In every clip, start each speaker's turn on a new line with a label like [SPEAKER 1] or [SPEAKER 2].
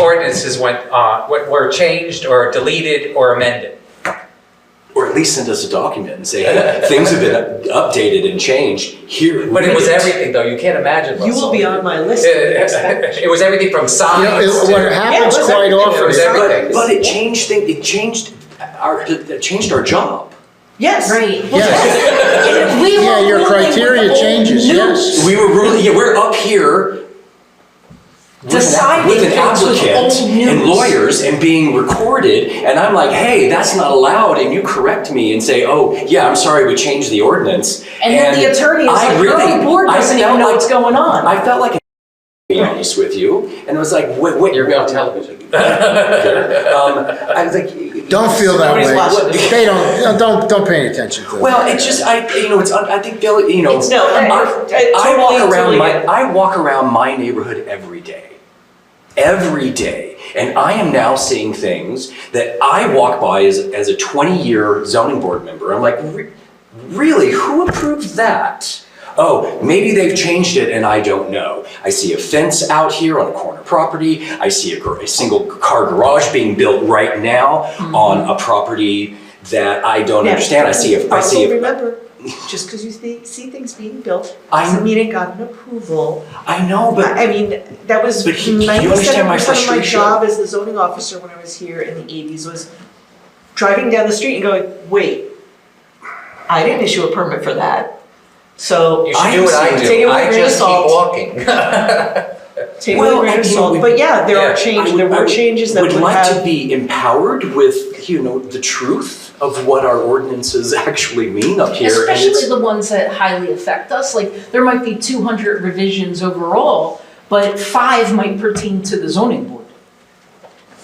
[SPEAKER 1] ordinances went, uh, were- were changed or deleted or amended.
[SPEAKER 2] Or at least send us a document and say, hey, things have been up- updated and changed here.
[SPEAKER 1] But it was
[SPEAKER 2] read
[SPEAKER 1] everything, though, you can't imagine.
[SPEAKER 3] You will be on my list. for the next package.
[SPEAKER 1] It was everything from
[SPEAKER 4] You know,
[SPEAKER 1] signs
[SPEAKER 4] it- what
[SPEAKER 1] to.
[SPEAKER 4] happens
[SPEAKER 3] Yeah, it was
[SPEAKER 4] quite
[SPEAKER 3] everything.
[SPEAKER 1] It
[SPEAKER 4] often,
[SPEAKER 1] was everything.
[SPEAKER 2] But it changed things, it changed our, it changed our job.
[SPEAKER 3] Yes.
[SPEAKER 5] Right.
[SPEAKER 4] yes,
[SPEAKER 5] We were
[SPEAKER 4] yeah, your
[SPEAKER 5] ruling with
[SPEAKER 4] criteria
[SPEAKER 5] the old
[SPEAKER 4] changes,
[SPEAKER 5] new-
[SPEAKER 4] yes.
[SPEAKER 2] We were really, yeah, we're up here with an- with
[SPEAKER 5] Deciding
[SPEAKER 2] an
[SPEAKER 5] things with
[SPEAKER 2] applicant
[SPEAKER 5] old
[SPEAKER 2] and
[SPEAKER 5] news.
[SPEAKER 2] lawyers and being recorded, and I'm like, hey, that's not allowed, and you correct me and say, oh, yeah, I'm sorry, we changed the ordinance.
[SPEAKER 5] And then the attorney is
[SPEAKER 2] I
[SPEAKER 5] like, your
[SPEAKER 2] really-
[SPEAKER 5] own board
[SPEAKER 2] I
[SPEAKER 5] doesn't
[SPEAKER 2] felt
[SPEAKER 5] even know
[SPEAKER 2] like-
[SPEAKER 5] what's going on.
[SPEAKER 2] I felt like, a to be honest with you, and it was like, what, what? You're on television. Um, I was like.
[SPEAKER 4] don't feel that
[SPEAKER 3] Somebody's
[SPEAKER 4] way.
[SPEAKER 3] watching.
[SPEAKER 4] They don't, don't, don't pay any attention to it.
[SPEAKER 2] Well, it's just I, you know, it's un- I think Bill, you know,
[SPEAKER 3] It's no,
[SPEAKER 2] I,
[SPEAKER 3] it's- it's
[SPEAKER 2] I
[SPEAKER 3] totally-
[SPEAKER 2] walk around
[SPEAKER 3] totally
[SPEAKER 2] my
[SPEAKER 3] good.
[SPEAKER 2] I walk around my neighborhood every day, every day, and I am now seeing things that I walk by as as a twenty year zoning board member. I'm like, "Re- really, who approved that? Oh, maybe they've changed it and I don't know. I see a fence out here on a corner property. I see a, gar- a single car garage being built right now on a property that I don't
[SPEAKER 3] Mm-hmm. Yeah.
[SPEAKER 2] understand. I see a, I see
[SPEAKER 3] Also
[SPEAKER 2] a,
[SPEAKER 3] remember, just because you see, see things being built,
[SPEAKER 2] I-
[SPEAKER 3] doesn't mean it got an approval.
[SPEAKER 2] I know, but
[SPEAKER 3] I I mean, that was
[SPEAKER 2] But he- you
[SPEAKER 3] ninety-seven
[SPEAKER 2] understand my
[SPEAKER 3] percent of my
[SPEAKER 2] frustration.
[SPEAKER 3] job as the zoning officer when I was here in the eighties was driving down the street and going, wait, I didn't issue a permit for that. So
[SPEAKER 1] You should do what I
[SPEAKER 3] Take it
[SPEAKER 1] do, I
[SPEAKER 3] with a grain of
[SPEAKER 1] just keep
[SPEAKER 3] salt.
[SPEAKER 1] walking.
[SPEAKER 3] take it with a
[SPEAKER 2] Well, I
[SPEAKER 3] grain of
[SPEAKER 2] mean, we-
[SPEAKER 3] salt, but yeah, there
[SPEAKER 1] yeah,
[SPEAKER 3] are
[SPEAKER 2] I
[SPEAKER 3] changes,
[SPEAKER 2] would-
[SPEAKER 3] there
[SPEAKER 2] I
[SPEAKER 3] were
[SPEAKER 2] would-
[SPEAKER 3] changes that would have.
[SPEAKER 2] like to be empowered with, you know, the truth of what our ordinances actually mean up here. and
[SPEAKER 5] Especially
[SPEAKER 2] it's-
[SPEAKER 5] the ones that highly affect us, like, there might be two hundred revisions overall, but five might pertain to the zoning board.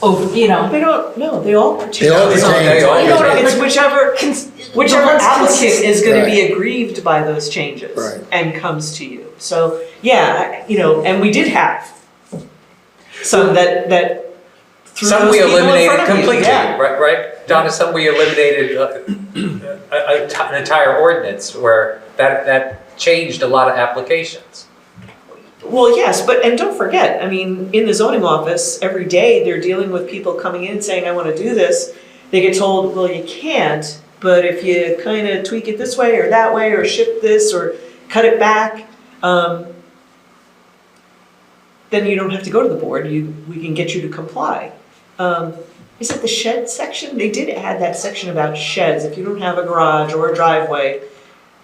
[SPEAKER 5] Oh, you know,
[SPEAKER 3] They don't, no, they all
[SPEAKER 4] They
[SPEAKER 3] pertain.
[SPEAKER 4] all
[SPEAKER 1] It's not-
[SPEAKER 4] pertain.
[SPEAKER 1] they all
[SPEAKER 5] You know what I-
[SPEAKER 3] It's whichever,
[SPEAKER 5] cons-
[SPEAKER 3] whichever
[SPEAKER 5] the ones
[SPEAKER 3] applicant
[SPEAKER 5] consist-
[SPEAKER 3] is gonna be
[SPEAKER 4] Right.
[SPEAKER 3] aggrieved by those changes
[SPEAKER 4] Right.
[SPEAKER 3] and comes to you. So, yeah, I- you know, and we did have some that, that threw
[SPEAKER 1] Some
[SPEAKER 3] those
[SPEAKER 1] we
[SPEAKER 3] people in
[SPEAKER 1] eliminated
[SPEAKER 3] front of you,
[SPEAKER 1] completely,
[SPEAKER 3] yeah.
[SPEAKER 1] right, right? Donna, some we eliminated uh, a- a t- an entire ordinance where that, that changed a lot of applications.
[SPEAKER 3] Well, yes, but, and don't forget, I mean, in the zoning office, every day, they're dealing with people coming in saying, I wanna do this. They get told, well, you can't, but if you kinda tweak it this way or that way, or shift this, or cut it back, um, then you don't have to go to the board, you, we can get you to comply. Um, is it the shed section? They did add that section about sheds, if you don't have a garage or a driveway,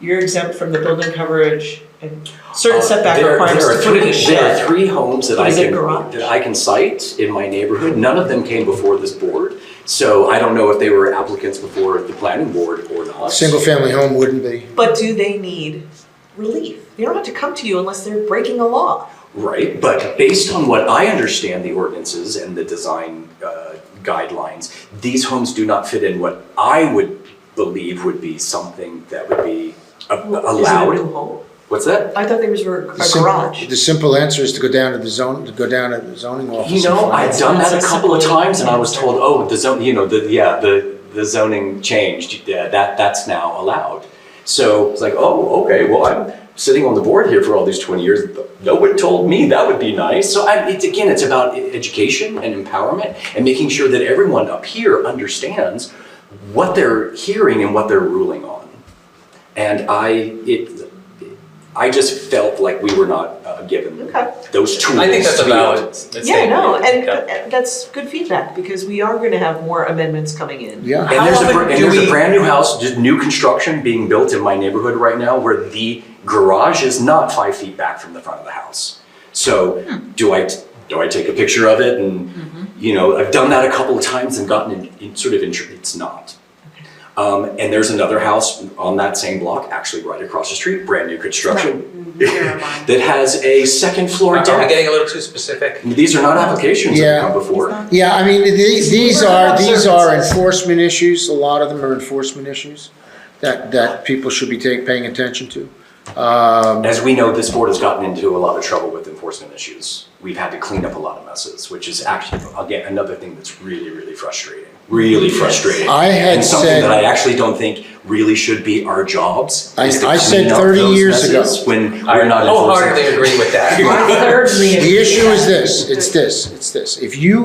[SPEAKER 3] you're exempt from the building coverage and certain
[SPEAKER 2] Uh,
[SPEAKER 3] setback
[SPEAKER 2] there-
[SPEAKER 3] requirements
[SPEAKER 2] there are
[SPEAKER 3] to put in a
[SPEAKER 2] three- There are
[SPEAKER 3] shed.
[SPEAKER 2] three homes that
[SPEAKER 3] What
[SPEAKER 2] I
[SPEAKER 3] is it,
[SPEAKER 2] can,
[SPEAKER 3] garage?
[SPEAKER 2] that I can cite in my neighborhood. None of them came before this board. So I don't know if they were applicants before the planning board or not.
[SPEAKER 4] Single-family home wouldn't be.
[SPEAKER 3] But do they need relief? They don't have to come to you unless they're breaking a law.
[SPEAKER 2] Right, but based on what I understand the ordinances and the design uh, guidelines, these homes do not fit in what I would believe would be something that would be a-
[SPEAKER 3] Is it a new
[SPEAKER 2] allowed.
[SPEAKER 3] home?
[SPEAKER 2] What's that?
[SPEAKER 3] I thought there was a a
[SPEAKER 4] The sim-
[SPEAKER 3] garage.
[SPEAKER 4] The simple answer is to go down to the zone, to go down to the zoning office.
[SPEAKER 2] You
[SPEAKER 4] and
[SPEAKER 2] know,
[SPEAKER 4] find
[SPEAKER 2] I've
[SPEAKER 4] out.
[SPEAKER 2] done that a
[SPEAKER 3] It's a
[SPEAKER 2] couple of
[SPEAKER 3] simple-
[SPEAKER 2] times and I was told, oh, the zone, you know, the, yeah, the, the zoning changed, yeah, that, that's now allowed. So it's like, oh, okay, well, I'm sitting on the board here for all these twenty years, no one told me that would be nice. So I, it's, again, it's about e- education and empowerment and making sure that everyone up here understands what they're hearing and what they're ruling on. And I, it, I just felt like we were not uh, given
[SPEAKER 3] Okay.
[SPEAKER 2] those tools.
[SPEAKER 1] I think that's
[SPEAKER 2] to
[SPEAKER 1] a
[SPEAKER 2] be able
[SPEAKER 1] valid
[SPEAKER 2] to-
[SPEAKER 1] mistake.
[SPEAKER 3] Yeah, no, and
[SPEAKER 1] Yeah.
[SPEAKER 3] uh, that's good feedback because we are gonna have more amendments coming in.
[SPEAKER 4] Yeah,
[SPEAKER 2] And
[SPEAKER 1] How
[SPEAKER 2] there's, a,
[SPEAKER 1] often
[SPEAKER 2] br- and
[SPEAKER 1] do
[SPEAKER 2] there's
[SPEAKER 1] we-
[SPEAKER 2] a brand new house, just new construction being built in my neighborhood right now where the garage is not five feet back from the front of the house. So
[SPEAKER 1] Hmm.
[SPEAKER 2] do I, do I take a picture of it? And,
[SPEAKER 1] Mm-hmm.
[SPEAKER 2] you know, I've done that a couple of times and gotten in, in sort of intrigued. It's not. Um, and there's another house on that same block, actually right across the street, brand new
[SPEAKER 1] Mm-hmm.
[SPEAKER 2] construction, that has a second floor
[SPEAKER 1] Are we
[SPEAKER 2] deck.
[SPEAKER 1] getting a little too specific?
[SPEAKER 2] These are not
[SPEAKER 1] Uh-huh.
[SPEAKER 2] applications that
[SPEAKER 4] Yeah.
[SPEAKER 2] have come before.
[SPEAKER 4] yeah, I mean, the- these
[SPEAKER 3] We're
[SPEAKER 4] are,
[SPEAKER 3] about
[SPEAKER 4] these are
[SPEAKER 3] services.
[SPEAKER 4] enforcement issues, a lot of them are enforcement issues that, that people should be take, paying attention to.
[SPEAKER 2] As we know, this board has gotten into a lot of trouble with enforcement issues. We've had to clean up a lot of messes, which is actually, again, another thing that's really, really frustrating. Really frustrating.
[SPEAKER 4] I had
[SPEAKER 2] And something
[SPEAKER 4] said-
[SPEAKER 2] that I actually don't think really should be our jobs.
[SPEAKER 4] I-
[SPEAKER 2] is to
[SPEAKER 4] I said
[SPEAKER 2] clean up
[SPEAKER 4] 30
[SPEAKER 2] those
[SPEAKER 4] years ago.
[SPEAKER 2] messes When
[SPEAKER 1] I
[SPEAKER 2] we're not enforcing.
[SPEAKER 1] wholeheartedly agree with that.
[SPEAKER 5] My third
[SPEAKER 4] The issue is this, it's this, it's this, if you